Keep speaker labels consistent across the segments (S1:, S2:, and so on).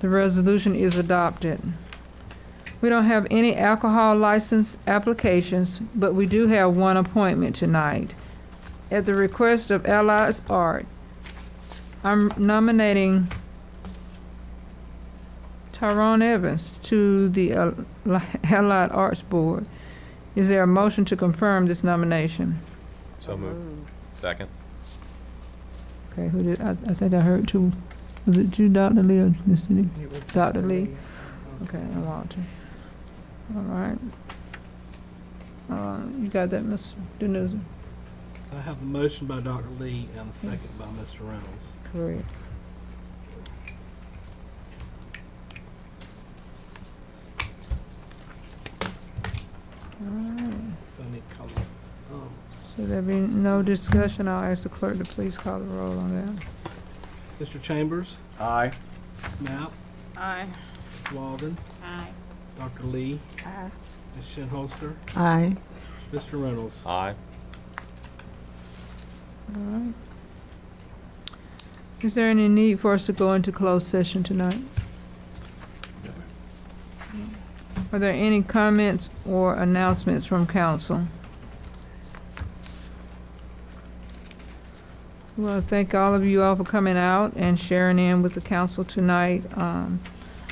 S1: The resolution is adopted. We don't have any alcohol license applications, but we do have one appointment tonight. At the request of Allies Art, I'm nominating Tyrone Evans to the uh, Allied Arts Board. Is there a motion to confirm this nomination?
S2: So moved. Second.
S1: Okay, who did, I, I think I heard two, was it you, Dr. Lee, or Mr. Lee? Dr. Lee? Okay, and Walter. All right. Uh, you got that, Mr. Denouzen?
S3: I have a motion by Dr. Lee and a second by Mr. Reynolds.
S1: Correct. All right,
S3: So I need to call it. Um,
S1: so there be no discussion, I'll ask the clerk to please call the roll on that.
S3: Mr. Chambers,
S2: Aye.
S3: Knapp,
S4: Aye.
S3: Ms. Walden,
S4: Aye.
S3: Dr. Lee,
S4: Aye.
S3: Ms. Shinholster,
S4: Aye.
S3: Mr. Reynolds.
S2: Aye.
S1: All right. Is there any need for us to go into closed session tonight? Are there any comments or announcements from council? Well, thank all of you all for coming out and sharing in with the council tonight. Um,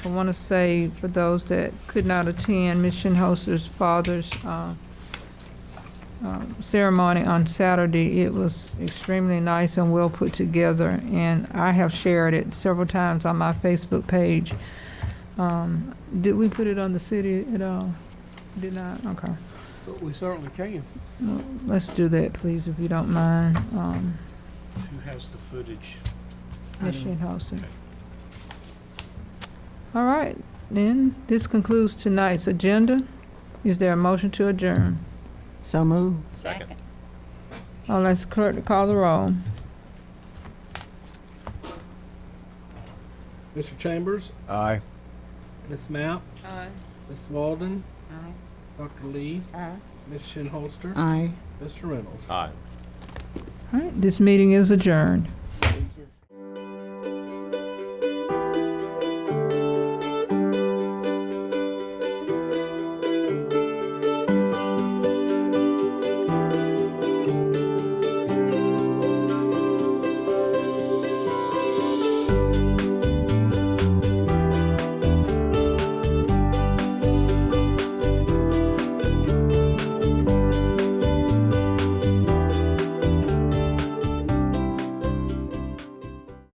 S1: I want to say for those that could not attend, Ms. Shinholster's father's, uh, um, ceremony on Saturday. It was extremely nice and well put together, and I have shared it several times on my Facebook page. Um, Did we put it on the city at all? Did not? Okay.
S3: But we certainly can.
S1: Well, Let's do that, please, if you don't mind. Um,
S3: Who has the footage?
S1: Ms.
S3: Item-
S1: Shinhouser. All right, then, this concludes tonight's agenda. Is there a motion to adjourn?
S4: So moved.
S2: Second.
S1: I'll ask the clerk to call the roll.
S3: Mr. Chambers,
S2: Aye.
S3: Ms. Knapp,
S4: Aye.
S3: Ms. Walden,
S4: Aye.
S3: Dr. Lee,
S4: Aye.
S3: Ms. Shinholster,
S4: Aye.
S3: Mr. Reynolds.
S2: Aye.
S1: All right, this meeting is adjourned.